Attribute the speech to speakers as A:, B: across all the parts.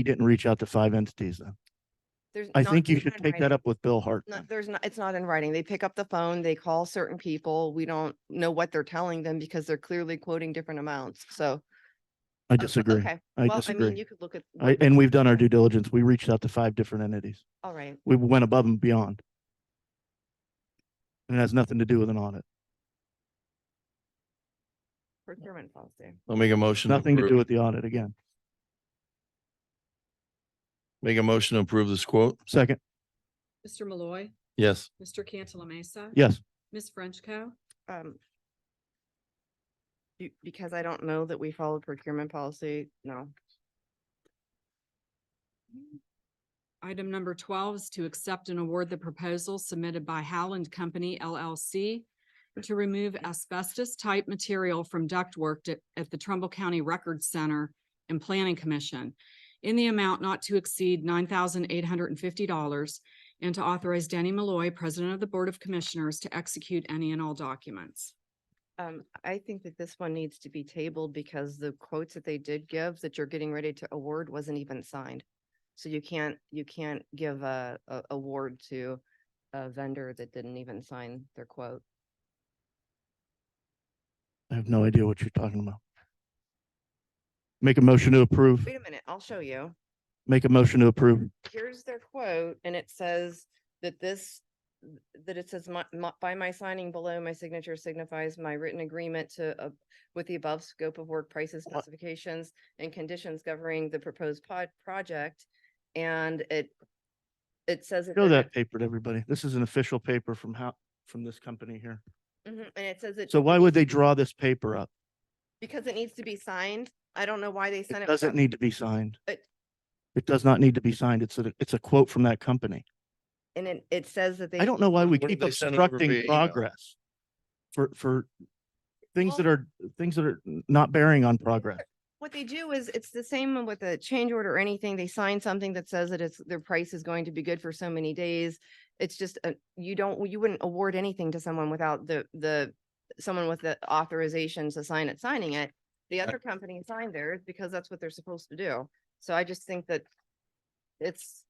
A: you didn't reach out to five entities then.
B: There's
A: I
B: not-
A: think you
B: it's
A: should
B: not in
A: take that
B: writing.
A: up with Bill Hart.
B: No, there's not, it's not in writing. They pick up the phone, they call certain people. We don't know what they're telling them because they're clearly quoting different amounts. So.
A: I disagree.
B: oh, Okay.
A: I
B: Well, I mean,
A: disagree.
B: you could look at.
A: I, and we've done our due diligence. We reached out to five different entities.
B: All right.
A: We went above and beyond. And it has nothing to do with an audit,
B: Procurement policy.
C: I'll make a motion.
A: nothing to do
C: approve-
A: with the audit again.
C: Make a motion to approve this quote.
A: Second,
D: Mr. Malloy,
C: Yes.
D: Mr. Cantala Mesa.
A: yes,
D: Ms. Frenchco.
B: Um. be- Because I don't know that we followed procurement policy. No.
D: Item number twelve is to accept and award the proposal submitted by Howland Company LLC to remove asbestos-type material from ductwork at, at the Trumbull County Record Center and Planning Commission in the amount not to exceed nine thousand eight hundred and fifty dollars and to authorize Danny Malloy, President of the Board of Commissioners, to execute any and all documents.
B: Um, I think that this one needs to be tabled because the quotes that they did give that you're getting ready to award wasn't even signed. So you can't, you can't give a, a award to a vendor that didn't even sign their quote.
A: I have no idea what you're talking about. Make a motion to approve,
B: Wait a minute, I'll show you.
A: make a motion to approve.
B: Here's their quote and it says that this, that it says my, my, by my signing below, my signature signifies my written agreement to, uh, with the above scope of work prices,
A: What?
B: specifications and conditions governing the proposed pod, project. And it, it says.
A: Show
B: they're-
A: that paper to everybody. This is an official paper from how, from this company here.
B: Mhm, And it says it.
A: So why would they
B: needs to be-
A: draw this paper up?
B: Because it needs to be signed. I don't know why they sent
A: It
B: it.
A: doesn't
B: without-
A: need to be signed.
B: It-
A: It does not need to be signed. It's a, it's a quote from that company.
B: And it, it says that they.
A: I don't know why we
C: What if
A: keep
C: they send it over via
A: obstructing
C: email?
A: progress for, for things that
B: Well-
A: are, things that are not bearing on progress.
B: What they do is, it's the same with a change order or anything. They sign something that says that it's, their price is going to be good for so many days. It's just, a- you don't, you wouldn't award anything to someone without the, the, someone with the authorization to sign it, signing it. The other company signed theirs because that's what they're supposed to do. So I just think that it's,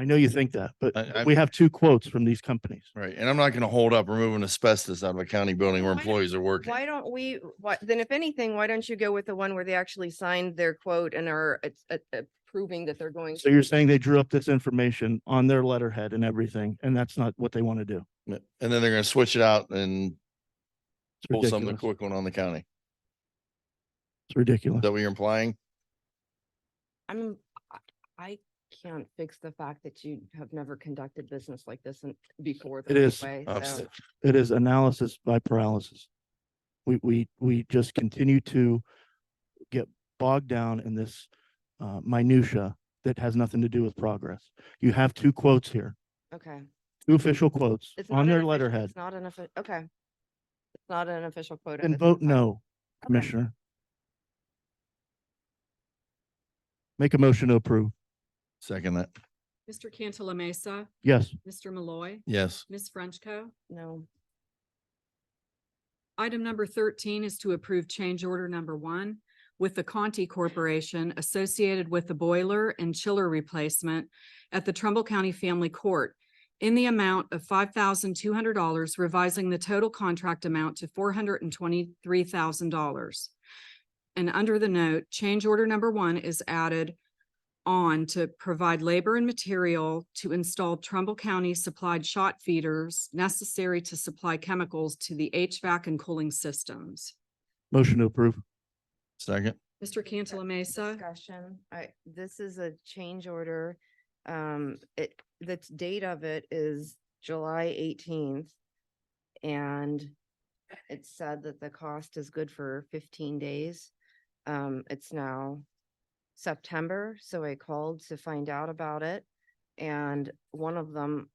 A: I know you think that,
C: I-
A: but
C: I'm-
A: we have two quotes from these companies.
C: Right. And I'm not going to hold up removing asbestos out of a county building where
B: Why don't-
C: employees are working.
B: Why don't we, why, then if anything, why don't you go with the one where they actually signed their quote and are it's, uh, uh, proving that they're going?
A: So you're saying they drew up this information on their letterhead and everything, and that's not what they want to do.
C: And then they're going to switch it out and
A: It's
C: pull something
A: ridiculous.
C: quick one on the county.
A: It's
C: Is
A: ridiculous.
C: that what you're implying?
B: I'm, I- I can't fix the fact that you have never conducted business like this and before.
A: It is.
B: way,
C: I'm
B: so-
C: s-
A: It is analysis by paralysis. We, we, we just continue to get bogged down in this uh, minutia that has nothing to do with progress. You have two quotes here,
B: Okay.
A: two official quotes
B: It's not
A: on
B: an
A: their
B: official-
A: letterhead.
B: It's not an official, okay. It's not an official quote.
A: Then vote no, Commissioner. Make a motion to approve.
C: Second that.
D: Mr. Cantala Mesa,
A: Yes,
D: Mr. Malloy,
C: Yes.
D: Ms. Frenchco.
B: No,
D: Item number thirteen is to approve change order number one with the Conti Corporation associated with the boiler and chiller replacement at the Trumbull County Family Court in the amount of five thousand two hundred dollars, revising the total contract amount to four hundred and twenty-three thousand dollars. And under the note, change order number one is added on to provide labor and material to install Trumbull County supplied shot feeders necessary to supply chemicals to the HVAC and cooling systems.
A: motion to approve.
C: Second.
D: Mr. Cantala Mesa,
B: Discussion, I, this is a change order. Um, it, the t- date of it is July eighteenth. And it said that the cost is good for fifteen days. Um, it's now September, so I called to find out about it. And one of them,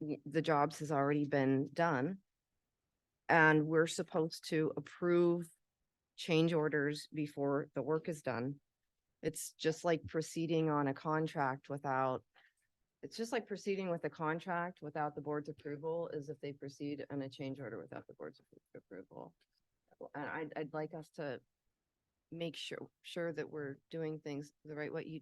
B: w- the jobs has already been done. And we're supposed to approve change orders before the work is done. It's just like proceeding on a contract without, it's just like proceeding with a contract without the board's approval is if they proceed on a change order without the board's appro- approval. And I'd, I'd like us to make sure, sure that we're doing things the right way. You,